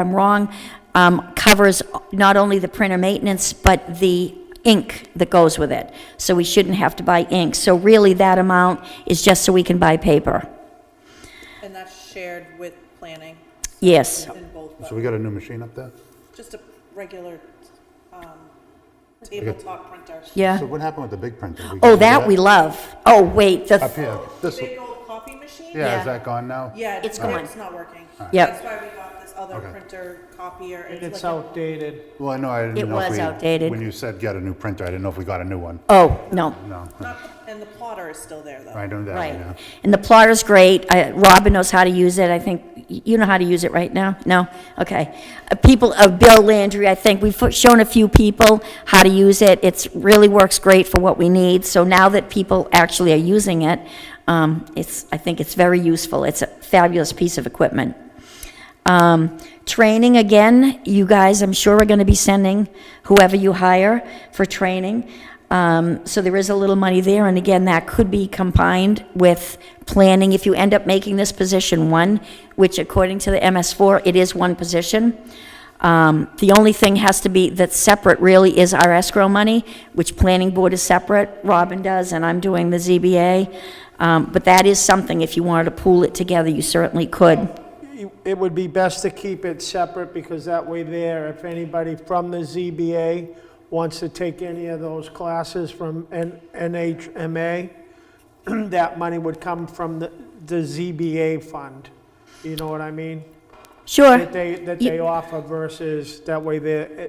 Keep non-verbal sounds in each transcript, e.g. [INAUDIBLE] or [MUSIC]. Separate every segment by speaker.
Speaker 1: I'm wrong, um, covers not only the printer maintenance, but the ink that goes with it. So we shouldn't have to buy ink. So really, that amount is just so we can buy paper.
Speaker 2: And that's shared with planning
Speaker 1: Yes,
Speaker 2: in both,
Speaker 3: So we got a new machine
Speaker 1: [LAUGHS]
Speaker 3: up there?
Speaker 2: just a regular um, tabletop printer.
Speaker 1: yeah.
Speaker 3: So what happened with the big printer?
Speaker 1: Oh,
Speaker 3: We got rid of
Speaker 1: that we love. Oh, wait,
Speaker 3: Up
Speaker 1: the,
Speaker 3: here, this,
Speaker 2: Big old copy machine?
Speaker 3: yeah, is that gone now?
Speaker 2: Yeah.
Speaker 1: It's
Speaker 2: It's not working.
Speaker 1: Yep.
Speaker 2: That's why we got this other
Speaker 3: Okay.
Speaker 2: printer copier.
Speaker 4: And it's
Speaker 2: like a-
Speaker 4: outdated.
Speaker 3: Well, I know, I
Speaker 1: It
Speaker 3: didn't know if
Speaker 1: was
Speaker 3: we...
Speaker 1: outdated.
Speaker 3: When you said get a new printer, I didn't know if we got a new one.
Speaker 1: oh, no,
Speaker 3: No,
Speaker 2: not- And the plotter is still there, though.
Speaker 3: I know that,
Speaker 1: right.
Speaker 3: yeah.
Speaker 1: And the plotter's great. I- Robin knows how to use it, I think. y- You know how to use it right now? No? Okay. Uh, People, uh, Bill Landry, I think, we've fo- shown a few people how to use it. It's, really works great for what we need. So now that people actually are using it, um, it's, I think it's very useful. It's a fabulous piece of equipment. Um, Training, again, you guys, I'm sure are going to be sending whoever you hire for training. Um, So there is a little money there, and again, that could be combined with planning. If you end up making this position one, which according to the MS4, it is one position, um, the only thing has to be, that's separate really is our escrow money, which planning board is separate, Robin does, and I'm doing the ZBA. Um, But that is something, if you wanted to pool it together, you certainly could.
Speaker 4: You- It would be best to keep it separate because that way there, if anybody from the ZBA wants to take any of those classes from N- NHMA, [CLEARS THROAT] that money would come from the, the ZBA fund. You know what I mean?
Speaker 1: Sure.
Speaker 4: That they, that
Speaker 1: You-
Speaker 4: they offer versus, that way there,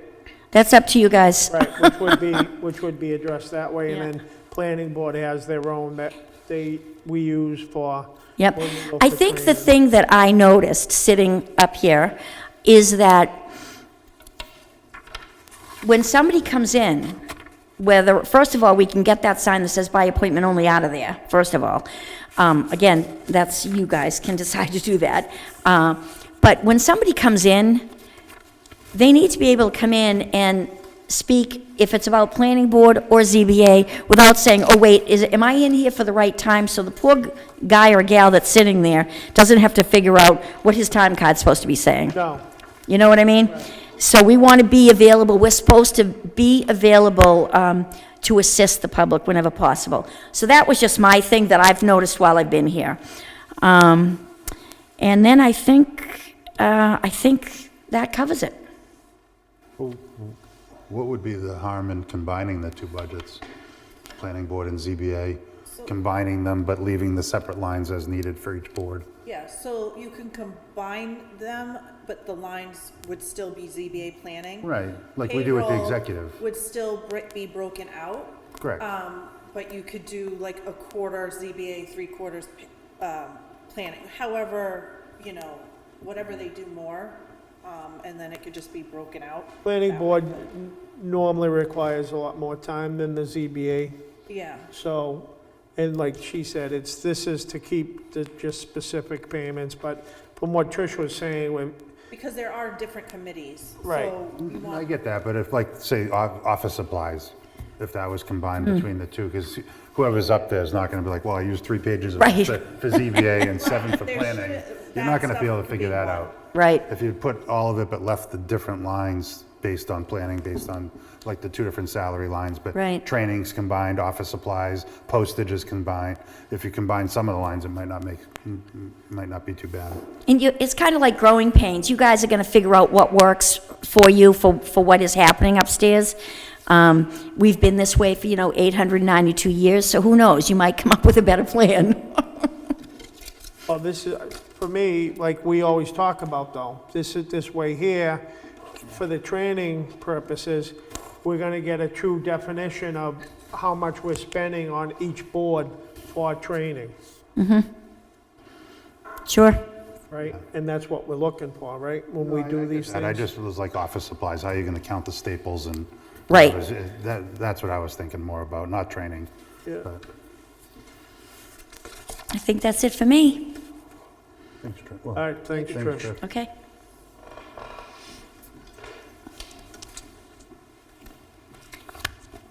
Speaker 1: That's up to you guys.
Speaker 4: right, which
Speaker 1: [LAUGHS]
Speaker 4: would be, which would be addressed that way.
Speaker 1: Yeah.
Speaker 4: And then planning board has their own that they, we use for.
Speaker 1: Yep.
Speaker 4: when we go
Speaker 1: I
Speaker 4: for uh,
Speaker 1: think the
Speaker 4: training.
Speaker 1: thing that I noticed sitting up here is that when somebody comes in, whether, first of all, we can get that sign that says by appointment only out of there, first of all. Um, Again, that's, you guys can [LAUGHS] decide to do that. Uh, But when somebody comes in, they need to be able to come in and speak, if it's about planning board or ZBA, without saying, oh, wait, is, am I in here for the right time? So the poor g- guy or gal that's sitting there doesn't have to figure out what his time card's supposed to be saying.
Speaker 4: No.
Speaker 1: You know what I mean? So we want to be available, we're supposed to be available um, to assist the public whenever possible. So that was just my thing that I've noticed while I've been here. Um, And then I think, uh, I think that covers it.
Speaker 3: What would be the harm in combining the two budgets? Planning board and ZBA, combining them but leaving the separate lines as needed for each board?
Speaker 2: Yeah, so you can combine them, but the lines would still be ZBA planning.
Speaker 3: Right, like we do with the
Speaker 2: Payroll
Speaker 3: executive.
Speaker 2: Would still br- be broken out.
Speaker 3: Correct.
Speaker 2: Um, but you could do like a quarter ZBA, three quarters, um, planning, however, you know, whatever they do more. Um, and then it could just be broken out.
Speaker 4: Planning board n- normally requires a lot more time than the ZBA,
Speaker 2: Yeah,
Speaker 4: so, and like she said, it's, this is to keep the just specific payments, but from what Trish was saying, when,
Speaker 2: because there are different committees.
Speaker 4: Right.
Speaker 2: So you
Speaker 3: I
Speaker 2: want,
Speaker 3: get that, but if like, say, o- office supplies, if that was combined
Speaker 2: Mm.
Speaker 3: between the two, because whoever's up there is not going to be like, well, I used three pages of
Speaker 1: Right.
Speaker 3: for
Speaker 2: [LAUGHS]
Speaker 3: for ZBA and seven for
Speaker 2: There
Speaker 3: planning.
Speaker 2: shouldn't-
Speaker 3: You're
Speaker 2: that
Speaker 3: not going to
Speaker 2: stuff
Speaker 3: be able to
Speaker 2: could
Speaker 3: figure
Speaker 2: be
Speaker 3: that
Speaker 2: one.
Speaker 3: out.
Speaker 1: Right.
Speaker 3: If you put all of it but left the different lines based on planning, based on like the two different salary lines, but
Speaker 1: Right.
Speaker 3: trainings combined, office supplies, postage is combined. If you combine some of the lines, it might not make, m- m- might not be too bad.
Speaker 1: And you, it's kind of like growing pains. You guys are going to figure out what works for you, for, for what is happening upstairs. Um, we've been this way for, you know, 892 years, so who knows? You might come up with a better plan.
Speaker 4: well, this is, for me, like we always talk about though, this is, this way here, for the training purposes, we're gonna get a true definition of how much we're spending on each board for training,
Speaker 1: Sure.
Speaker 4: right? And that's what we're looking for, right, when we do these things?
Speaker 3: And I just was like office supplies, how are you going to count the staples and?
Speaker 1: Right.
Speaker 3: That, that's what I was thinking more about, not training.
Speaker 4: Yeah.
Speaker 3: but-
Speaker 1: I think that's it for me.
Speaker 3: Thanks, Trish. Well,
Speaker 4: All right, thanks,
Speaker 3: thanks,
Speaker 4: Trish.
Speaker 3: Trish.
Speaker 1: Okay.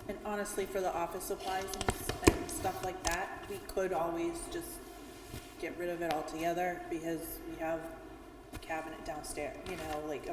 Speaker 2: and honestly, for the office supplies and s- and stuff like that, we could always just get rid of it altogether because we have a cabinet downstairs, you know, like a